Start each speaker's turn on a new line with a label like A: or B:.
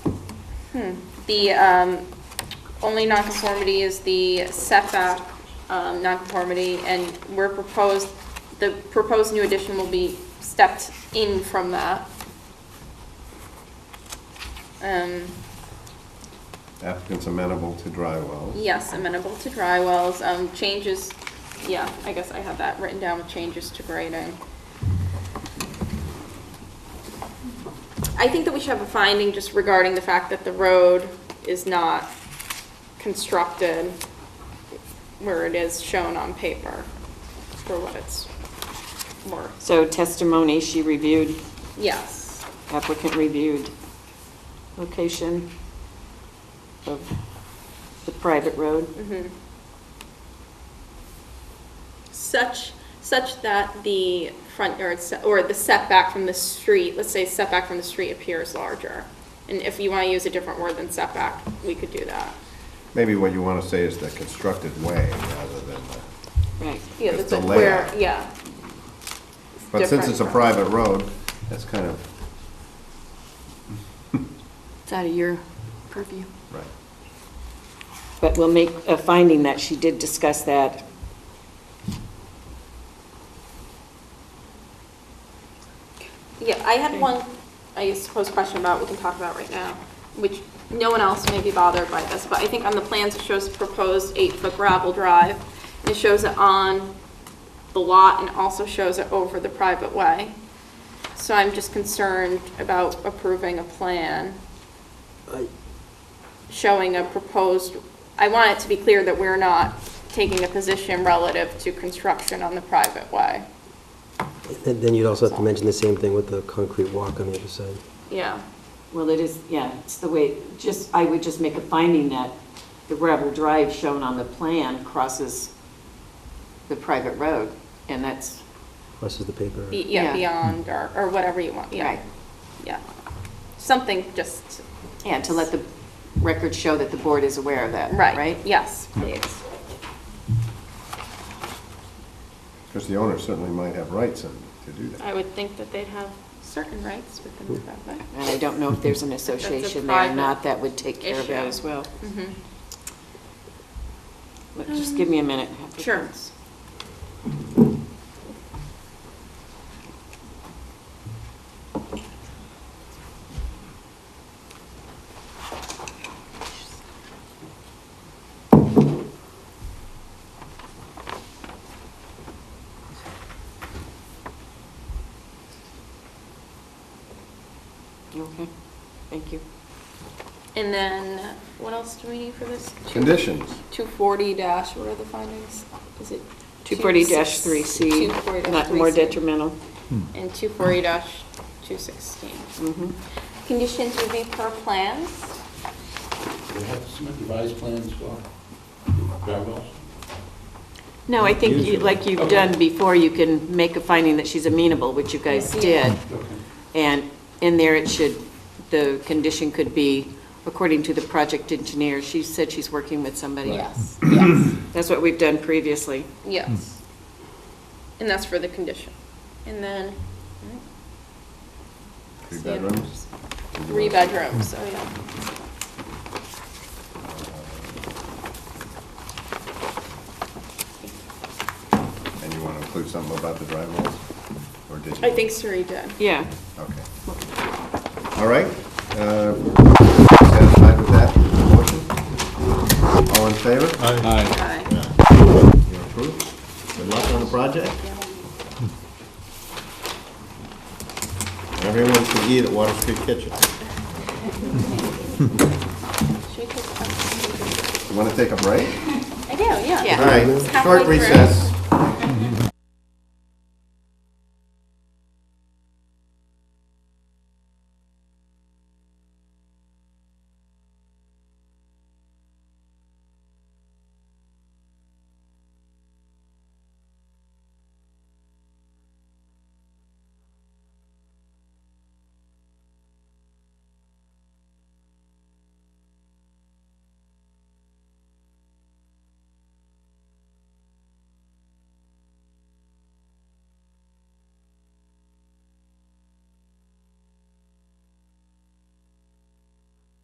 A: Hmm. The um, only nonconformity is the setback um, nonconformity, and we're proposed, the proposed new addition will be stepped in from that. Um,
B: Applicant's amenable to dry wells.
A: Yes, amenable to dry wells, um, changes, yeah, I guess I have that written down with changes to grading. I think that we should have a finding just regarding the fact that the road is not constructed where it is shown on paper for what it's worth.
C: So testimony she reviewed,
A: Yes,
C: applicant reviewed, location of the private road.
A: Mm-hmm. such, such that the front yard, se- or the setback from the street, let's say setback from the street appears larger. And if you want to use a different word than setback, we could do that.
B: Maybe what you want to say is the constructed way rather than the,
C: Right.
A: Yeah,
B: Just
A: that's
B: the
A: like where,
B: layout.
A: yeah. It's
B: but since
A: different
B: it's a
A: from-
B: private road, that's kind of,
D: It's out of your purview.
B: right.
C: But we'll make a finding that she did discuss that.
A: Yeah, I had one, I suppose, question about, we can talk about right now, which no one else may be bothered by this, but I think on the plans, it shows proposed eight-foot gravel drive, and it shows it on the lot and also shows it over the private way. So I'm just concerned about approving a plan showing a proposed, I want it to be clear that we're not taking a position relative to construction on the private way.
E: Then then you'd also have to mention the same thing with the concrete walk on the other side.
A: Yeah.
C: Well, it is, yeah, it's the way, just, I would just make a finding that the gravel drive shown on the plan crosses the private road, and that's,
E: This is the paper.
A: Be- Yeah,
C: Yeah.
A: beyond, or, or whatever you want, yeah.
C: Right.
A: Yeah. Something just,
C: yeah, to let the record show that the board is aware of that,
A: right.
C: right?
A: Yes, please.
B: Because the owner certainly might have rights in- to do
A: I
B: that.
A: would think that they'd have certain rights within the private.
C: And I don't know if there's an association there or
A: private
C: not that would take care of that
A: issue.
C: as well.
A: Mm-hmm.
C: But Just give me a minute.
A: Mm. Sure.
C: Okay, thank you.
A: And then, what else do we need for this? Two-
B: Conditions.
A: 240 dash, what are the findings? Is it? two-
C: 240-3C,
A: 240-3C.
C: not more detrimental.
A: And 240-216.
C: Mhm.
A: Conditions would be per plans?
F: We have to submit revised plans for gravel.
C: No, I think, you- like you've done before, you can make a finding that she's amenable, which you guys did.
F: Okay.
C: And in there, it should, the condition could be, according to the project engineer, she said she's working with somebody.
A: Yes, yes,
C: That's what we've done previously.
A: yes.
B: Hmm.
A: And that's for the condition. And then.
B: Three bedrooms?
A: Three bedrooms, oh yeah.
B: And you want to include something about the dry wells? Or did you?
A: I think Suri did.
C: Yeah.
B: Okay. All right. uh, Satisfied with that motion? All in favor?
A: Aye.
B: You're approved. Good luck on the project. Everyone should eat at Water Street Kitchen.
A: Should we take a-
B: You want to take a break?
A: I do, yeah.
C: Yeah.
B: All right,
A: Halfway
B: short
A: through.
B: recess.